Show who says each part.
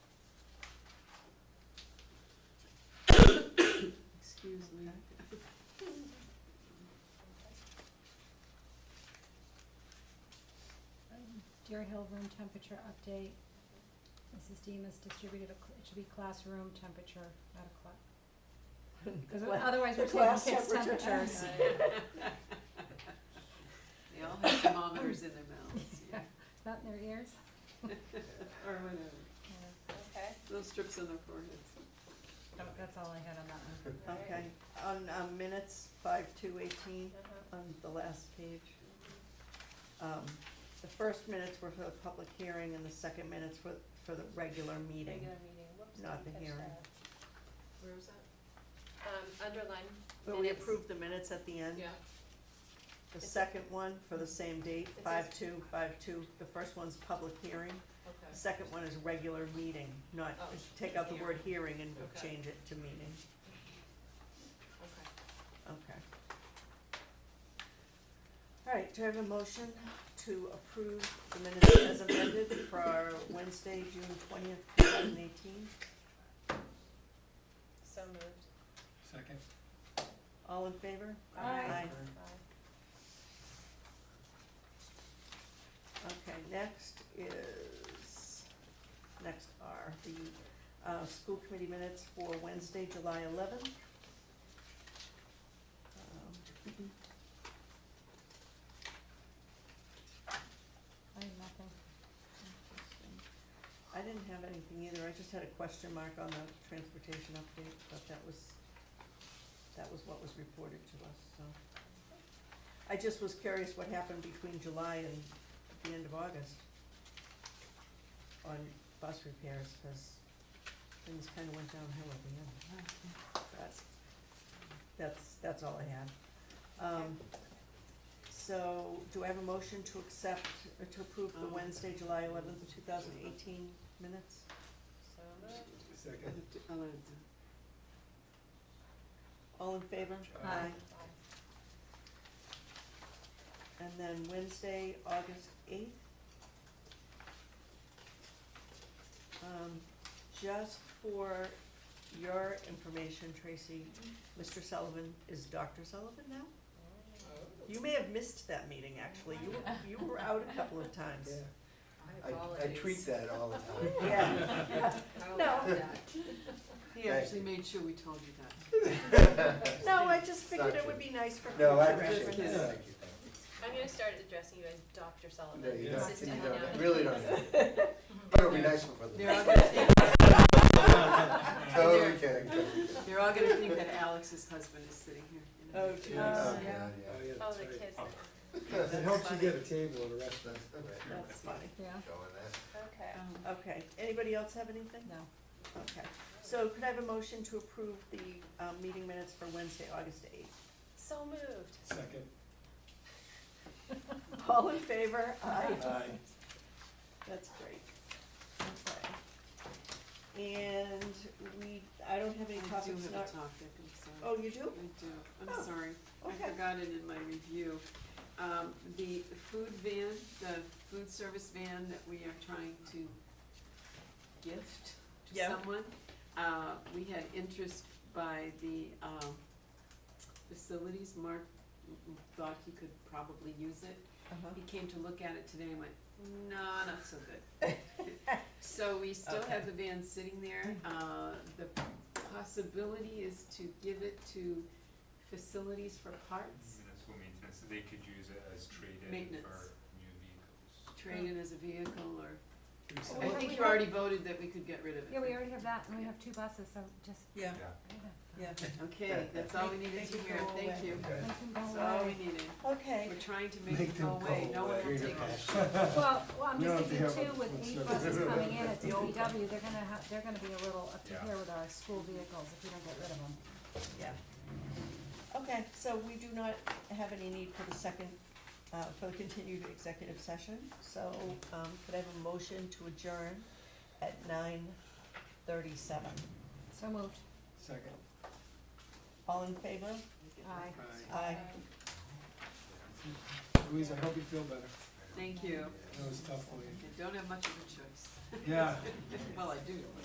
Speaker 1: Deer Hill room temperature update. Mrs. Demas distributed, a cl- it should be classroom temperature, not a cla- cause
Speaker 2: cla-
Speaker 1: otherwise
Speaker 2: the
Speaker 1: we're taking
Speaker 2: class
Speaker 1: kids'
Speaker 2: temperature.
Speaker 1: temperatures.
Speaker 3: They all have thermometers in their mouths, yeah,
Speaker 1: Not in their ears.
Speaker 3: or whatever,
Speaker 1: Yeah,
Speaker 4: Okay,
Speaker 3: little strips on their foreheads.
Speaker 1: that- That's all I had on that one.
Speaker 2: Okay, on, um minutes five to eighteen,
Speaker 4: Uh-huh.
Speaker 2: on the last page. Um, the first minutes were for the public hearing and the second minutes were for the regular meeting.
Speaker 4: regular meeting, whoops, I
Speaker 2: Not the
Speaker 4: didn't catch
Speaker 2: hearing.
Speaker 4: that.
Speaker 3: Where was that?
Speaker 4: Um, underline,
Speaker 2: But we
Speaker 4: Minutes.
Speaker 2: approved the minutes at the end.
Speaker 3: Yeah,
Speaker 2: The
Speaker 4: It's-
Speaker 2: second one for the same date,
Speaker 4: says-
Speaker 2: five two, five two. The first one's public hearing. The
Speaker 3: okay,
Speaker 2: Second one is regular meeting, not,
Speaker 3: Oh,
Speaker 2: take out the word hearing and
Speaker 3: Okay.
Speaker 2: change it to meeting,
Speaker 3: okay.
Speaker 2: okay. All right, do I have a motion to approve the minutes as amended for our Wednesday, June twentieth, two thousand eighteen?
Speaker 4: so moved,
Speaker 5: Second.
Speaker 2: All in favor?
Speaker 4: Aye. aye.
Speaker 2: Okay, next is, next are the, uh, school committee minutes for Wednesday, July eleventh. Um,
Speaker 1: I have nothing.
Speaker 2: I didn't have anything either, I just had a question mark on the transportation update, but that was, that was what was reported to us, so. I just was curious what happened between July and the end of August on bus repairs, cause things kinda went downhill at the end. That's, that's, that's all I had. Um, so, do I have a motion to accept, or to approve the
Speaker 3: Um,
Speaker 2: Wednesday, July eleventh, two thousand eighteen minutes?
Speaker 4: so moved,
Speaker 5: Second.
Speaker 3: I'll let it do.
Speaker 2: All in favor?
Speaker 1: Uh,
Speaker 5: Aye.
Speaker 4: aye.
Speaker 2: And then Wednesday, August eighth. Um, just for your information, Tracy, Mr. Sullivan is Dr. Sullivan now? You may have missed that meeting, actually, you were, you were out a couple of times.
Speaker 3: My
Speaker 6: I, I tweet
Speaker 3: apologies.
Speaker 6: that all the time.
Speaker 2: Yeah,
Speaker 3: I'll
Speaker 2: No.
Speaker 3: allow that. He
Speaker 6: Thank
Speaker 3: actually made sure we told you that.
Speaker 2: no, I just figured it would be nice for future
Speaker 6: No, I
Speaker 2: reference.
Speaker 6: appreciate it, thank you, thank
Speaker 4: I'm gonna start addressing you as Dr.
Speaker 6: you.
Speaker 4: Sullivan.
Speaker 6: No, you don't,
Speaker 4: This is
Speaker 6: you
Speaker 4: how
Speaker 6: don't,
Speaker 4: now-
Speaker 6: I really don't have. But it'll be nice for
Speaker 3: They're all
Speaker 6: them.
Speaker 3: gonna think,
Speaker 6: Totally kidding. Oh, totally kidding.
Speaker 3: they're all gonna think that Alex's husband is sitting here. you know.
Speaker 2: Oh, geez.
Speaker 6: Oh,
Speaker 2: Yeah.
Speaker 6: God, yeah.
Speaker 4: Oh, the kids, that-
Speaker 5: It helps you get a table at a restaurant.
Speaker 6: That's the way I'm
Speaker 2: That's funny,
Speaker 1: Yeah,
Speaker 6: going there.
Speaker 2: uh,
Speaker 4: okay,
Speaker 3: Um,
Speaker 2: okay, anybody else have anything?
Speaker 1: no.
Speaker 2: Okay, so could I have a motion to approve the, um, meeting minutes for Wednesday, August eighth?
Speaker 4: so moved,
Speaker 5: Second.
Speaker 2: All in favor? Aye.
Speaker 5: Aye.
Speaker 2: That's great. Okay. And we, I don't have any
Speaker 3: I do
Speaker 2: topics
Speaker 3: have a
Speaker 2: not,
Speaker 3: topic, I'm sorry.
Speaker 2: oh, you do?
Speaker 3: I do,
Speaker 2: Oh,
Speaker 3: I'm sorry,
Speaker 2: okay.
Speaker 3: I forgot it in my review. Um, the food van, the food service van that we are trying to gift to
Speaker 2: Yeah.
Speaker 3: someone. Uh, we had interest by the, um, facilities, Mark thought he could probably use it.
Speaker 2: Uh-huh.
Speaker 3: He came to look at it today and went, no, not so good. So we still have the van sitting there.
Speaker 6: Mm.
Speaker 3: Uh, the possibility is to give it to facilities for parts,
Speaker 7: Municipal maintenance, they could use it as trade-in
Speaker 3: Maintenance.
Speaker 7: for new vehicles.
Speaker 3: trade in as a vehicle or, I
Speaker 1: So what
Speaker 3: think
Speaker 1: Oh, we
Speaker 3: you already voted that we could get rid of it.
Speaker 1: Yeah, we already have that and we have two buses, so just.
Speaker 2: Yeah, yeah.
Speaker 7: Yeah.
Speaker 3: Okay, that's all we needed
Speaker 2: Make-
Speaker 3: to
Speaker 2: make it
Speaker 3: hear,
Speaker 2: go
Speaker 3: thank
Speaker 2: away.
Speaker 3: you.
Speaker 6: Okay.
Speaker 1: Make them go
Speaker 3: That's all we
Speaker 1: away.
Speaker 3: needed.
Speaker 2: Okay,
Speaker 3: We're trying to make
Speaker 6: Make
Speaker 3: it
Speaker 6: them
Speaker 3: go away,
Speaker 6: go
Speaker 3: no one will
Speaker 6: away.
Speaker 3: take it.
Speaker 1: Well, well, I'm
Speaker 5: We
Speaker 1: just
Speaker 5: don't
Speaker 1: thinking
Speaker 5: have
Speaker 1: too,
Speaker 5: a
Speaker 1: with
Speaker 5: food
Speaker 1: eight
Speaker 5: service.
Speaker 1: buses coming in at the
Speaker 3: The old
Speaker 1: DPW, they're gonna have, they're gonna be a little up to
Speaker 7: Yeah.
Speaker 1: here with our school vehicles if we don't get rid of them.
Speaker 2: yeah. Okay, so we do not have any need for the second, uh, for the continued executive session. So, um, could I have a motion to adjourn at nine thirty-seven?
Speaker 1: So moved.
Speaker 5: Second.
Speaker 2: All in favor?
Speaker 1: Aye.
Speaker 5: Aye.
Speaker 2: Aye.
Speaker 4: Um,
Speaker 5: Louise, I hope you feel better.
Speaker 3: Thank you.
Speaker 5: That was tough for
Speaker 3: I
Speaker 5: you.
Speaker 3: don't have much of a choice.
Speaker 5: Yeah.
Speaker 3: Well, I do,